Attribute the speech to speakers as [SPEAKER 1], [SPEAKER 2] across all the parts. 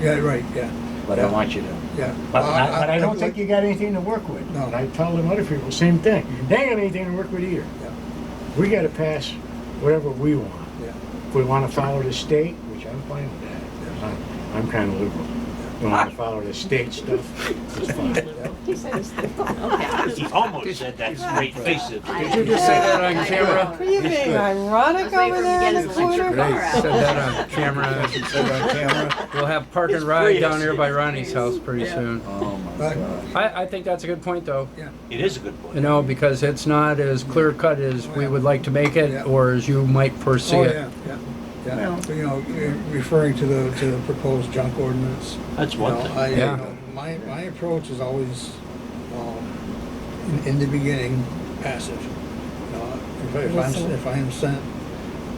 [SPEAKER 1] Yeah, right, yeah,
[SPEAKER 2] but I want you to.
[SPEAKER 1] yeah.
[SPEAKER 3] But
[SPEAKER 1] Well,
[SPEAKER 4] Uh,
[SPEAKER 3] I, but I don't think you got anything to work with.
[SPEAKER 1] No.
[SPEAKER 3] And I tell them other people, same thing. They ain't got anything to work with either.
[SPEAKER 1] Yeah.
[SPEAKER 3] We gotta pass whatever we want.
[SPEAKER 1] Yeah.
[SPEAKER 3] If we wanna follow the state, which I'm fine with that, 'cause I'm, I'm kinda liberal. We wanna follow the state stuff, it's fine.
[SPEAKER 5] He said it's okay.
[SPEAKER 4] He almost said that straight faced.
[SPEAKER 2] Did you just say that on camera?
[SPEAKER 6] Are you being ironic
[SPEAKER 5] I was waiting for him to
[SPEAKER 6] over there
[SPEAKER 5] get
[SPEAKER 6] in the
[SPEAKER 5] his electric
[SPEAKER 6] corner?
[SPEAKER 5] car
[SPEAKER 1] Great,
[SPEAKER 5] out.
[SPEAKER 1] said that on camera, she said on camera.
[SPEAKER 2] We'll have Park and Ride down here by Ronnie's house pretty soon.
[SPEAKER 4] Oh my
[SPEAKER 1] But-
[SPEAKER 2] I, I think that's a good point, though.
[SPEAKER 4] It is a good
[SPEAKER 2] You
[SPEAKER 4] point.
[SPEAKER 2] know, because it's not as clear cut as we would like to make
[SPEAKER 1] Yeah.
[SPEAKER 2] it, or as you might foresee
[SPEAKER 1] Oh,
[SPEAKER 2] it.
[SPEAKER 1] yeah, yeah, yeah. You know, referring to the, to the proposed junk ordinance.
[SPEAKER 4] That's
[SPEAKER 1] You
[SPEAKER 4] one
[SPEAKER 1] know,
[SPEAKER 4] thing.
[SPEAKER 1] I, you
[SPEAKER 2] Yeah.
[SPEAKER 1] know, my, my approach is always, um, in, in the beginning, passive. You know, If I- if I'm,
[SPEAKER 6] Listen.
[SPEAKER 1] if I am sent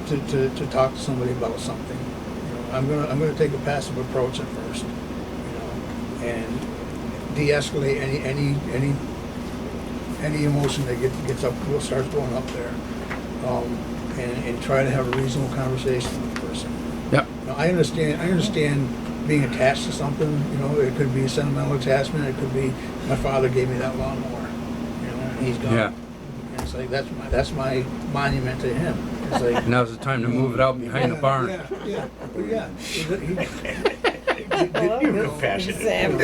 [SPEAKER 1] to, to, to talk to somebody about something, you know, I'm gonna, I'm gonna take a passive approach at first, you know, and de-escalate any, any, any, any emotion that gets, gets up, starts going up there. Um, and, and try to have a reasonable conversation with the person.
[SPEAKER 2] Yep.
[SPEAKER 1] Now, I understand, I understand being attached to something, you know, it could be sentimental attachment, it could be, my father gave me that lawnmower, you know, and he's
[SPEAKER 2] Yeah.
[SPEAKER 1] gone. And it's like, that's my, that's my monument to him. It's like.
[SPEAKER 2] Now's the time to move it out behind the
[SPEAKER 1] Yeah,
[SPEAKER 2] barn.
[SPEAKER 1] Yeah, yeah, well, yeah. He- he-
[SPEAKER 6] Hello?
[SPEAKER 1] you know,
[SPEAKER 6] Examine.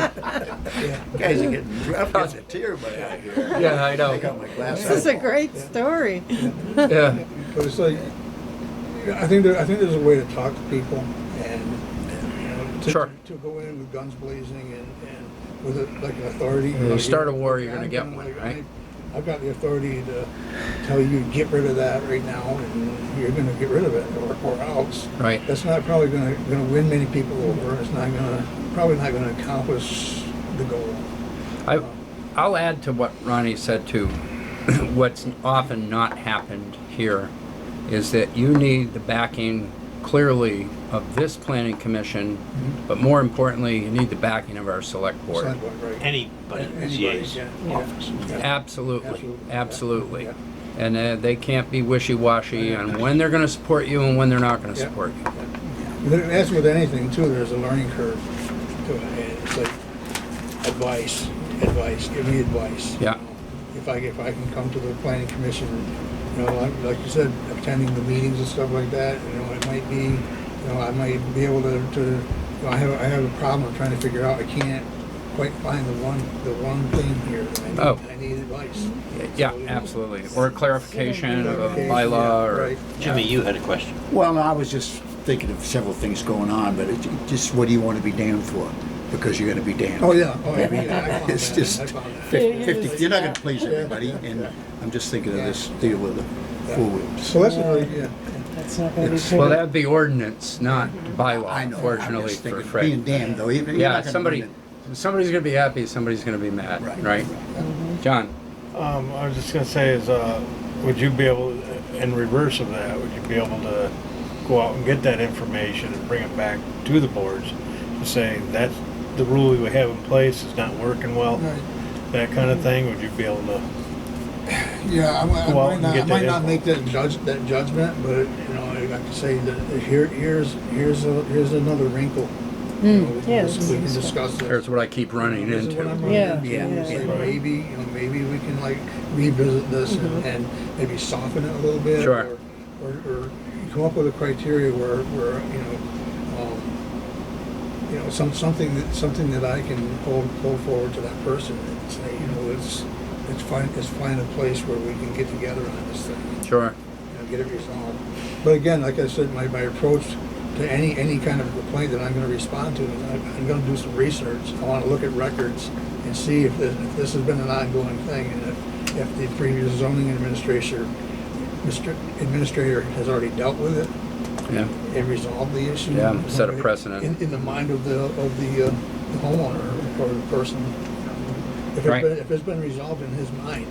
[SPEAKER 1] yeah.
[SPEAKER 4] Guys are getting, I'm getting a tear in my eye here.
[SPEAKER 2] Yeah, I know.
[SPEAKER 6] This is a great story.
[SPEAKER 2] Yeah,
[SPEAKER 1] But it's like, I think there, I think there's a way to talk to people and, you know, to,
[SPEAKER 2] Sure.
[SPEAKER 1] to go in with guns blazing and, and with a- like an authority.
[SPEAKER 2] You
[SPEAKER 1] know,
[SPEAKER 2] Mm, start a war,
[SPEAKER 1] okay,
[SPEAKER 2] you're gonna
[SPEAKER 1] I'm
[SPEAKER 2] get
[SPEAKER 1] gonna,
[SPEAKER 2] one,
[SPEAKER 1] like,
[SPEAKER 2] right?
[SPEAKER 1] I- I've got the authority to tell you, get rid of that right now and you're gonna get rid of it or, or else.
[SPEAKER 2] right.
[SPEAKER 1] That's not probably gonna, gonna win many people over. It's not gonna, probably not gonna accomplish the goal.
[SPEAKER 2] I, I'll add to what Ronnie said too. What's often not happened here is that you need the backing clearly of this planning commission,
[SPEAKER 1] Mm-hmm.
[SPEAKER 2] but more importantly, you need the backing of our select board.
[SPEAKER 1] Sidewalk, right?
[SPEAKER 4] Anybody in the
[SPEAKER 1] Anybody,
[SPEAKER 4] CA's
[SPEAKER 1] yeah, yeah.
[SPEAKER 4] office.
[SPEAKER 2] Absolutely,
[SPEAKER 1] Absolutely.
[SPEAKER 2] absolutely.
[SPEAKER 1] Yeah.
[SPEAKER 2] And uh, they can't be wishy-washy on when they're gonna support you and when they're not gonna
[SPEAKER 1] Yeah.
[SPEAKER 2] support you.
[SPEAKER 1] There- As with anything too, there's a learning curve to it, and it's like advice, advice, give me advice.
[SPEAKER 2] Yeah.
[SPEAKER 1] If I, if I can come to the planning commission, you know, like, like you said, attending the meetings and stuff like that, you know, it might be, you know, I might be able to, to, you know, I have, I have a problem I'm trying to figure out, I can't quite find the one, the one thing here, I
[SPEAKER 2] Oh.
[SPEAKER 1] need, I need advice.
[SPEAKER 2] Yeah,
[SPEAKER 1] So, you know,
[SPEAKER 2] absolutely. Or a clarification of a
[SPEAKER 1] okay,
[SPEAKER 2] bylaw
[SPEAKER 1] yeah,
[SPEAKER 2] or,
[SPEAKER 1] right,
[SPEAKER 4] Jimmy, you had a question.
[SPEAKER 7] Well, I was just thinking of several things going on, but it, it just what do you want to be damned for? Because you're going to be damned.
[SPEAKER 1] Oh, yeah, oh, yeah, I found
[SPEAKER 7] It's
[SPEAKER 1] that,
[SPEAKER 7] just
[SPEAKER 1] I found that.
[SPEAKER 7] 50, 50 you're not going to please everybody, and I'm just thinking of this deal with the four wheels.
[SPEAKER 1] So that's a really, yeah.
[SPEAKER 6] That's not gonna be
[SPEAKER 7] It's-
[SPEAKER 2] well,
[SPEAKER 6] true.
[SPEAKER 2] that'd be ordinance, not
[SPEAKER 7] I
[SPEAKER 2] bylaw,
[SPEAKER 7] know. I'm
[SPEAKER 2] fortunately
[SPEAKER 7] just
[SPEAKER 2] for
[SPEAKER 7] thinking
[SPEAKER 2] Fred.
[SPEAKER 7] being damned though. even- you're
[SPEAKER 2] Yeah,
[SPEAKER 7] not gonna
[SPEAKER 2] somebody,
[SPEAKER 7] win it.
[SPEAKER 2] somebody's gonna be happy, somebody's gonna be mad,
[SPEAKER 7] Right.
[SPEAKER 2] right? John,
[SPEAKER 8] Um, I was just gonna say is, uh, would you be able, in reverse of that, would you be able to go out and get that information and bring it back to the boards and say, that's the rule we have in place, it's not working well,
[SPEAKER 1] Right.
[SPEAKER 8] that kind of thing, would you be able to?
[SPEAKER 1] Yeah, I, I
[SPEAKER 8] Go out
[SPEAKER 1] might
[SPEAKER 8] and
[SPEAKER 1] not, I
[SPEAKER 8] get
[SPEAKER 1] might
[SPEAKER 8] that
[SPEAKER 1] not
[SPEAKER 8] info.
[SPEAKER 1] make that judge, that judgment, but, you know, I have to say that here, here's, here's, a- here's another wrinkle. You know, we can
[SPEAKER 6] Hmm. yeah,
[SPEAKER 1] dis-
[SPEAKER 6] this is
[SPEAKER 1] We can
[SPEAKER 6] useful.
[SPEAKER 1] discuss this.
[SPEAKER 2] here's what I keep running
[SPEAKER 1] This is what I'm
[SPEAKER 2] into.
[SPEAKER 1] running
[SPEAKER 6] Yeah,
[SPEAKER 1] into.
[SPEAKER 6] yeah,
[SPEAKER 1] It's like,
[SPEAKER 8] yeah.
[SPEAKER 1] Maybe, you know, maybe we can like revisit this and and maybe soften it a little bit.
[SPEAKER 2] Sure.
[SPEAKER 1] or- Or, or come up with a criteria where, where, you know, um, you know, some, something that, something that I can pull, pull forward to that person and say, you know, it's, it's find, it's find a place where we can get together on this thing
[SPEAKER 2] Sure,
[SPEAKER 1] know, get it resolved. But again, like I said, my, my approach to any, any kind of complaint that I'm gonna respond to, is I'm, I'm gonna do some research. I wanna look at records and see if this, if this has been an ongoing thing, and if, if the previous zoning administrator, Mr. Administrator has already dealt with it
[SPEAKER 2] yeah,
[SPEAKER 1] and resolved the issue.
[SPEAKER 2] Yeah, set a precedent.
[SPEAKER 1] In, in the mind of the, of the uh, the homeowner or the person. If
[SPEAKER 2] Right.
[SPEAKER 1] it's been, if it's been resolved in his mind,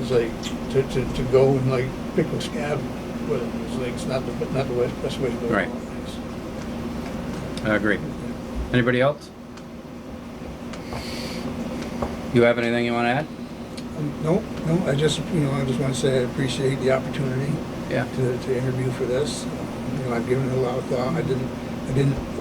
[SPEAKER 1] it's like, to, to, to go and like pick a scab with it, it's like, it's not the, not the way- best way to go.
[SPEAKER 2] Right.
[SPEAKER 1] about things.
[SPEAKER 2] I agree. Anybody else? You have anything you wanna add?
[SPEAKER 1] Um, No, no, I just, you know, I just wanna say I appreciate the opportunity.
[SPEAKER 2] Yeah.
[SPEAKER 1] to, to interview for this. You know, I've given it a lot of thought. I didn't, I didn't